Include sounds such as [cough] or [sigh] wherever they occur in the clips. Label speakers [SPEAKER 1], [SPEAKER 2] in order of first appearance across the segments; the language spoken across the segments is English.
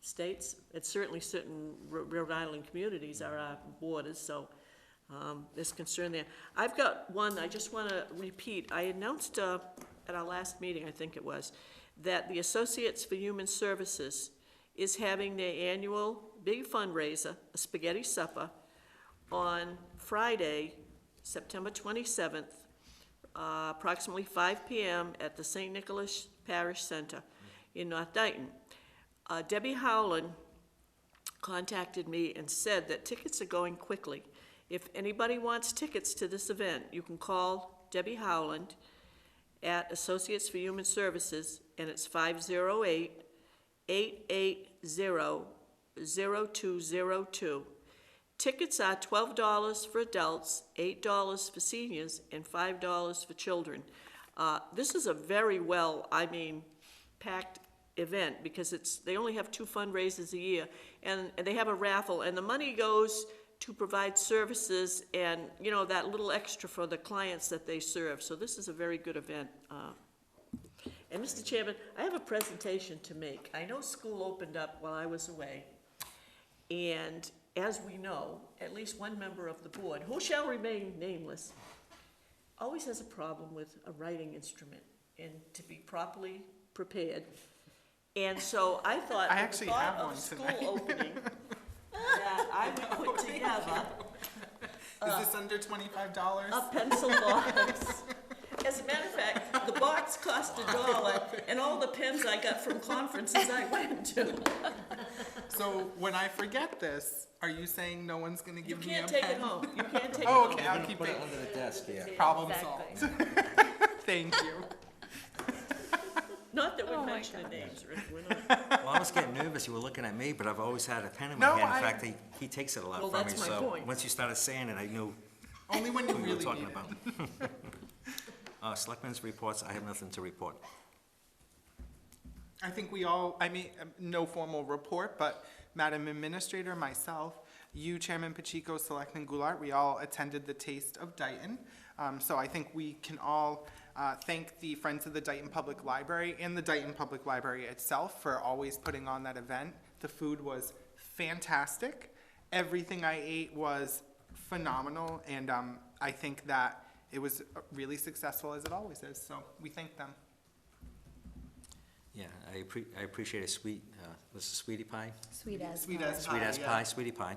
[SPEAKER 1] states, it's certainly certain Ro- Rhode Island communities are our borders, so um, there's concern there. I've got one, I just want to repeat. I announced uh, at our last meeting, I think it was, that the Associates for Human Services is having their annual big fundraiser, a spaghetti supper, on Friday, September 27th, uh, approximately 5 PM at the St. Nicholas Parish Center in North Dayton. Uh, Debbie Howland contacted me and said that tickets are going quickly. If anybody wants tickets to this event, you can call Debbie Howland at Associates for Human Services, and it's 508 880-0202. Tickets are $12 for adults, $8 for seniors, and $5 for children. Uh, This is a very well, I mean, packed event, because it's, they only have two fundraisers a year, and and they have a raffle, and the money goes to provide services and, you know, that little extra for the clients that they serve. So this is a very good event. uh, and Mr. Chairman, I have a presentation to make. I know school opened up while I was away. And as we know, at least one member of the board, who shall remain nameless, always has a problem with a writing instrument and to be properly prepared. And so I thought,
[SPEAKER 2] I
[SPEAKER 1] with the
[SPEAKER 2] actually
[SPEAKER 1] thought
[SPEAKER 2] have
[SPEAKER 1] of
[SPEAKER 2] one
[SPEAKER 1] school
[SPEAKER 2] tonight. [laughs]
[SPEAKER 1] opening, that I would put together Uh,
[SPEAKER 2] Is this under twenty-five dollars?
[SPEAKER 1] a pencil box. As a matter of fact, the box cost a dollar, and all the pens I got from conferences I went to.
[SPEAKER 2] So when I forget this, are you saying no one's gonna
[SPEAKER 1] You
[SPEAKER 2] give me a
[SPEAKER 1] can't
[SPEAKER 2] pen?
[SPEAKER 1] take it home, you can't take it
[SPEAKER 2] Oh,
[SPEAKER 1] home.
[SPEAKER 2] okay, I'll keep
[SPEAKER 3] Put it
[SPEAKER 2] it.
[SPEAKER 3] under the desk, yeah.
[SPEAKER 2] Problem
[SPEAKER 4] Exactly.
[SPEAKER 2] solved. Thank you.
[SPEAKER 1] Not that
[SPEAKER 4] Oh,
[SPEAKER 1] we're
[SPEAKER 4] my
[SPEAKER 1] mentioning
[SPEAKER 4] God.
[SPEAKER 1] names, Rick, we're
[SPEAKER 2] [laughs]
[SPEAKER 1] not.
[SPEAKER 3] Well, I was getting nervous, you were looking at me, but I've always had a pen in my
[SPEAKER 2] No,
[SPEAKER 3] hand.
[SPEAKER 2] I-
[SPEAKER 3] In fact, he, he takes it a lot
[SPEAKER 1] Well,
[SPEAKER 3] from me,
[SPEAKER 1] that's my
[SPEAKER 3] so,
[SPEAKER 1] point.
[SPEAKER 3] once you started saying it, I knew
[SPEAKER 2] Only when you
[SPEAKER 3] who you were
[SPEAKER 2] really
[SPEAKER 3] talking
[SPEAKER 2] need it.
[SPEAKER 3] about.
[SPEAKER 2] [laughs]
[SPEAKER 3] Uh, selectmen's reports, I have nothing to report.
[SPEAKER 2] I think we all, I mean, um, no formal report, but Madam Administrator, myself, you, Chairman Pacheco, Selectman Goulart, we all attended the Taste of Dayton. Um, so I think we can all, uh, thank the Friends of the Dayton Public Library and the Dayton Public Library itself for always putting on that event. The food was fantastic. Everything I ate was phenomenal, and, um, I think that it was uh, really successful as it always is, so we thank them.
[SPEAKER 3] Yeah, I appre- I appreciate a sweet, uh, was it sweetie pie?
[SPEAKER 4] Sweet as
[SPEAKER 2] Sweet
[SPEAKER 4] pie.
[SPEAKER 2] as pie.
[SPEAKER 3] Sweet as
[SPEAKER 2] yeah.
[SPEAKER 3] pie, sweetie pie.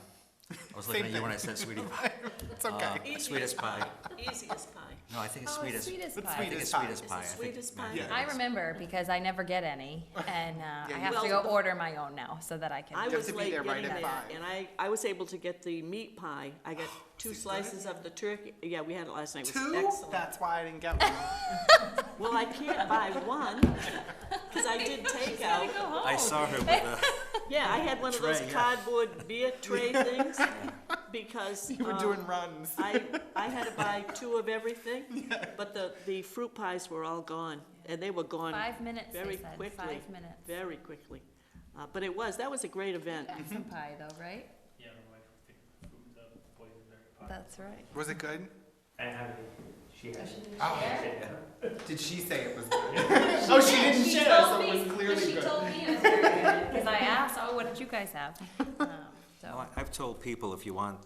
[SPEAKER 3] I was looking
[SPEAKER 2] Same
[SPEAKER 3] at you when
[SPEAKER 2] thing.
[SPEAKER 3] I said
[SPEAKER 2] [laughs]
[SPEAKER 3] sweetie pie.
[SPEAKER 2] It's okay.
[SPEAKER 3] Uh, Sweet as pie.
[SPEAKER 1] Easy as pie.
[SPEAKER 3] No, I think it's
[SPEAKER 4] Oh,
[SPEAKER 3] sweet
[SPEAKER 4] it's
[SPEAKER 3] as.
[SPEAKER 4] sweet as
[SPEAKER 2] It's
[SPEAKER 4] pie.
[SPEAKER 3] I think it's
[SPEAKER 2] Sweet as pie.
[SPEAKER 3] sweet as
[SPEAKER 1] Is it
[SPEAKER 3] pie. I
[SPEAKER 1] sweet
[SPEAKER 3] think-
[SPEAKER 1] as
[SPEAKER 3] no,
[SPEAKER 1] pie?
[SPEAKER 3] think
[SPEAKER 4] I
[SPEAKER 3] it's-
[SPEAKER 4] remember because I never get any, and uh, I have to
[SPEAKER 1] Well-
[SPEAKER 4] go order my own now so that I can.
[SPEAKER 1] I
[SPEAKER 2] have
[SPEAKER 1] was
[SPEAKER 2] to be
[SPEAKER 1] late
[SPEAKER 2] there right
[SPEAKER 1] getting there,
[SPEAKER 2] at five. Oh,
[SPEAKER 1] and I, I was able to get the meat pie. I got two slices of the turkey, yeah, we had it last night, it was
[SPEAKER 2] Two?
[SPEAKER 1] excellent.
[SPEAKER 2] That's why I didn't get one.
[SPEAKER 1] Well,
[SPEAKER 2] [laughs]
[SPEAKER 1] I can't buy one, because I
[SPEAKER 4] [laughs]
[SPEAKER 1] did take out.
[SPEAKER 4] Go home.
[SPEAKER 3] I saw her with the,
[SPEAKER 1] Yeah, I had one of those
[SPEAKER 3] Tray, yeah.
[SPEAKER 1] cardboard beer
[SPEAKER 2] [laughs]
[SPEAKER 1] tray things, because,
[SPEAKER 2] You were
[SPEAKER 1] um,
[SPEAKER 2] doing runs.
[SPEAKER 1] I, I had to buy two of
[SPEAKER 2] [laughs]
[SPEAKER 1] everything, but the, the fruit pies were all gone, and they were gone
[SPEAKER 4] Five minutes.
[SPEAKER 1] very
[SPEAKER 4] they said.
[SPEAKER 1] quickly.
[SPEAKER 4] Five minutes.
[SPEAKER 1] Very quickly. Uh, but it was, that was a great event.
[SPEAKER 4] Some pie though, right?
[SPEAKER 5] Yeah, my wife picked food up, boysenberry pie.
[SPEAKER 4] That's right.
[SPEAKER 2] Was it good?
[SPEAKER 5] I have it. She has it.
[SPEAKER 2] Oh,
[SPEAKER 5] Yeah.
[SPEAKER 2] did she say it was good? oh, she didn't
[SPEAKER 4] She
[SPEAKER 2] share,
[SPEAKER 4] told
[SPEAKER 2] so
[SPEAKER 4] me-
[SPEAKER 2] it was
[SPEAKER 4] but
[SPEAKER 2] clearly
[SPEAKER 4] She
[SPEAKER 2] good.
[SPEAKER 4] told
[SPEAKER 2] [laughs]
[SPEAKER 4] me it was very good because I asked, "Oh, what did you guys have?" Um,
[SPEAKER 3] No,
[SPEAKER 2] Oh,
[SPEAKER 4] so
[SPEAKER 3] I- I've told people if you want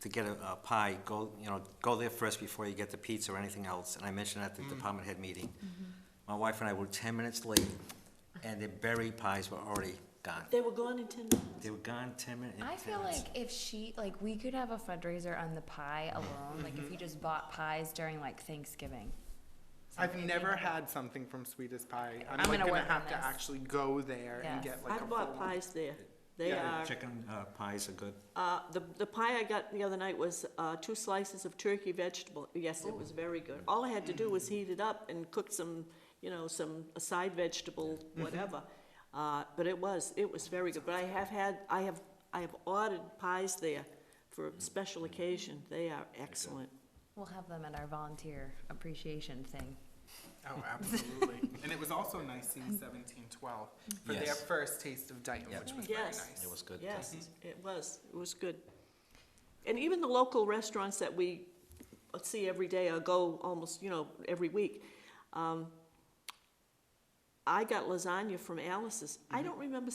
[SPEAKER 3] to get a a pie, go, you know, go there first before you get the pizza or anything else. And I mentioned at the
[SPEAKER 4] Mm.
[SPEAKER 3] department head meeting,
[SPEAKER 4] Mm-hmm.
[SPEAKER 3] my wife and I were ten minutes late, and the berry pies were already gone.
[SPEAKER 1] They were gone in ten minutes.
[SPEAKER 3] They were gone ten minutes.
[SPEAKER 4] I feel like if she like we could have a fundraiser on the pie alone. Like if you just bought pies during like Thanksgiving.
[SPEAKER 2] I've never had something from Sweetest Pie. I'm,
[SPEAKER 4] I'm
[SPEAKER 2] like,
[SPEAKER 4] gonna
[SPEAKER 2] gonna,
[SPEAKER 4] work on
[SPEAKER 2] have to
[SPEAKER 4] this.
[SPEAKER 2] actually go there and
[SPEAKER 4] Yes.
[SPEAKER 2] get like
[SPEAKER 1] I
[SPEAKER 2] a
[SPEAKER 1] bought
[SPEAKER 2] full-
[SPEAKER 1] pies there. They
[SPEAKER 2] Yeah,
[SPEAKER 1] are,
[SPEAKER 3] Chicken uh, pies are good.
[SPEAKER 1] uh, the, the pie I got the other night was, uh, two slices of turkey vegetable. Yes, it was very good. All I had to do was heat it up and cook some, you know, some side vegetable, whatever. Uh, but it was, it was very good. But I have had, I have, I have ordered pies there for a special occasion. They are excellent.
[SPEAKER 4] We'll have them at our volunteer appreciation thing.
[SPEAKER 1] [laughs]
[SPEAKER 2] Oh, absolutely. and it was also nice seeing 1712 for their
[SPEAKER 3] Yes.
[SPEAKER 2] first taste of Dayton,
[SPEAKER 3] Yeah.
[SPEAKER 2] which was very
[SPEAKER 1] Yes.
[SPEAKER 2] nice. Mm-hmm.
[SPEAKER 3] It was good.
[SPEAKER 1] Yes, it was, it was good. And even the local restaurants that we see every day or go almost, you know, every week.
[SPEAKER 2] Mm-hmm.
[SPEAKER 1] um, I got lasagna from Alice's. I don't remember